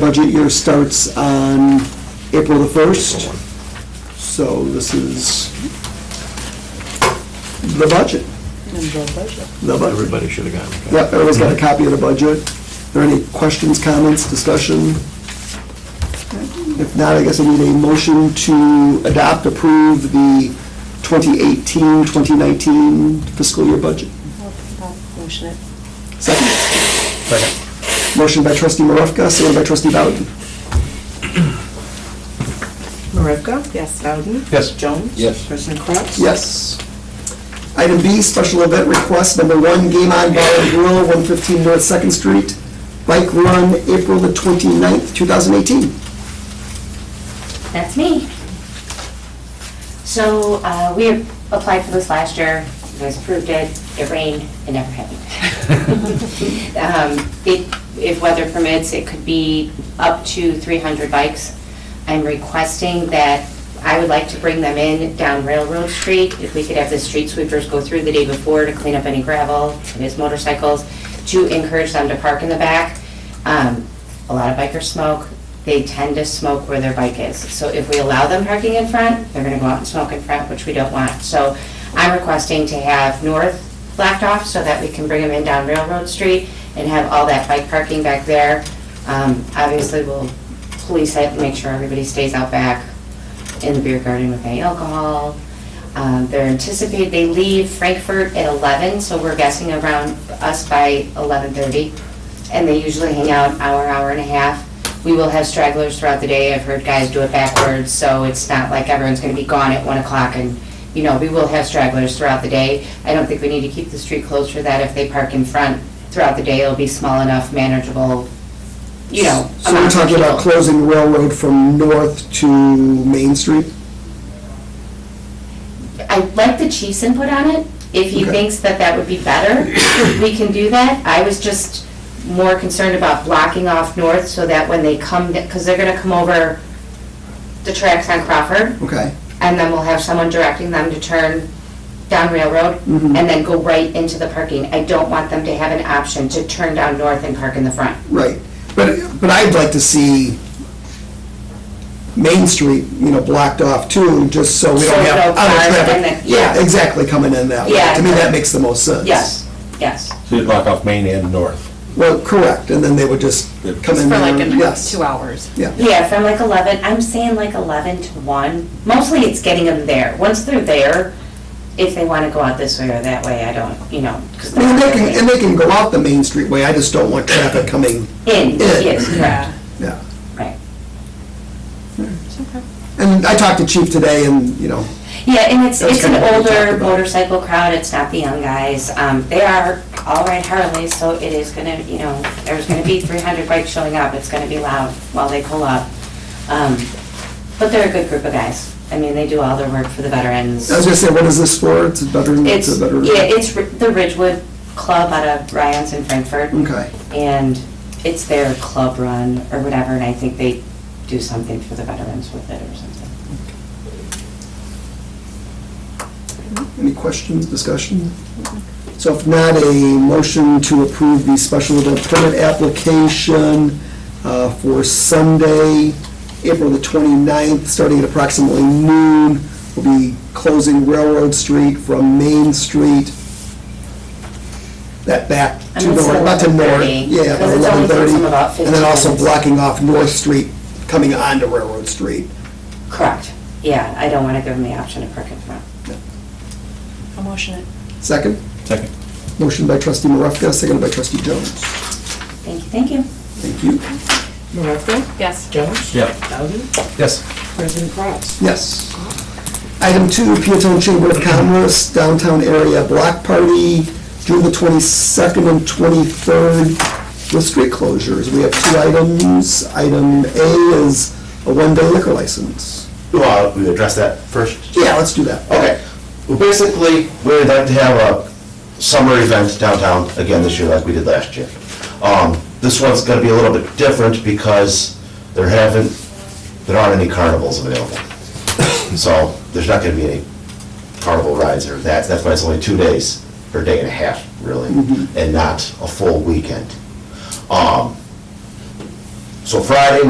budget year starts on April the 1st, so this is the budget, the budget. Everybody should have gotten Yep, everyone's got a copy of the budget. Are there any questions, comments, discussion? If not, I guess I need a motion to adopt, approve the 2018-2019 fiscal year budget. Motion it. Second? Motion by trustee Marevka, second by trustee Bowden. Marevka? Yes. Bowden? Yes. Jones? Yes. President Kraus? Yes. Item B, special event request, number one, Game On Bar and Grill, 115 North Second Street, bike run, April the 29th, 2018. That's me. So, uh, we applied for this last year, you guys approved it, it rained, it never happened. Um, It, if weather permits, it could be up to 300 bikes. I'm requesting that, I would like to bring them in down Railroad Street, if we could have the street sweepers go through the day before to clean up any gravel, his motorcycles, to encourage them to park in the back. Um, A lot of bikers smoke, they tend to smoke where their bike is. So if we allow them parking in front, they're gonna go out and smoke in front, which we don't want. So I'm requesting to have north blacked off so that we can bring them in down Railroad Street and have all that bike parking back there. Um, Obviously, we'll police it, make sure everybody stays out back in the beer garden with any alcohol. Um, They're anticipated, they leave Frankfurt at 11, so we're guessing around us by 11:30. And they usually hang out hour, hour and a half. We will have stragglers throughout the day. I've heard guys do it backwards, so it's not like everyone's going to be gone at 1 o'clock and, you know, we will have stragglers throughout the day. I don't think we need to keep the street closed for that. If they park in front throughout the day, it'll be small enough, manageable, you know. So we're amount of talking about people. closing railroad from north to Main Street? I like the chief's input on it. If he Okay. thinks that that would be better, we can do that. I was just more concerned about blocking off north so that when they come, because they're gonna come over the tracks on Crawford, Okay, and then we'll have someone directing them to turn down Railroad and Mhm. then go right into the parking. I don't want them to have an option to turn down north and park in the front. right. But, but I'd like to see Main Street, you know, blocked off too, just so we So don't no have cars other and then- traffic. yeah. Exactly, coming in that way. Yeah. To me, that makes the most sense. Yes, yes. So you block off Main and North. Well, correct, and then they would just come in there. Just for like an yes. two hours. Yeah, Yeah, from like 11, I'm saying like 11 to 1. Mostly it's getting them there. Once they're there, if they want to go out this way or that way, I don't, you know, because I they're mean, they can, and they can go out the Main Street way, I just don't want traffic coming, in, yes, correct, Yeah. yeah. right. And I talked to Chief today and, you know, Yeah, and it's, That's it's an kinda what we talked older about. motorcycle crowd, it's not the young guys. Um, They are all ride Harleys, so it is gonna, you know, there's gonna be 300 bikes showing up, it's gonna be loud while they pull up. Um, But they're a good group of guys. I mean, they do all their work for the veterans. I was gonna say, what is this for? It's a veteran, it's It's, a veteran. yeah, it's Ri- the Ridgewood Club out of Ryan's in Frankfurt. Okay. And it's their club run or whatever, and I think they do something for the veterans with it or something. Any questions, discussion? So if not, a motion to approve the special event permit application uh, for Sunday, April the 29th, starting at approximately noon. We'll be closing Railroad Street from Main Street, that back And to it's north, not to north. 11:30, Yeah, because about it's only 11:30. takes them about And then 15 also minutes. blocking off North Street, coming onto Railroad Street. Correct. Yeah, I don't want to give them the option to park in front. I'll motion it. Second? Second. Motion by trustee Marevka, seconded by trustee Jones. Thank you, thank you. Thank you. Marevka? Yes. Jones? Yep. Bowden? Yes. President Kraus? Yes. Item two, Peatone Chamber of Commerce, downtown area block party, June the 22nd and 23rd, with street closures. We have two items. Item A is a one-day liquor license. Well, we address that first. Yeah, let's do that. Okay, well, basically, we'd like to have a summer event downtown again this year like we did last year. Um, This one's gonna be a little bit different because there haven't, there aren't any carnivals available. So there's not gonna be any carnival rides or that, that's why it's only two days, or a day and a half, really, and not a full weekend. Um, So Friday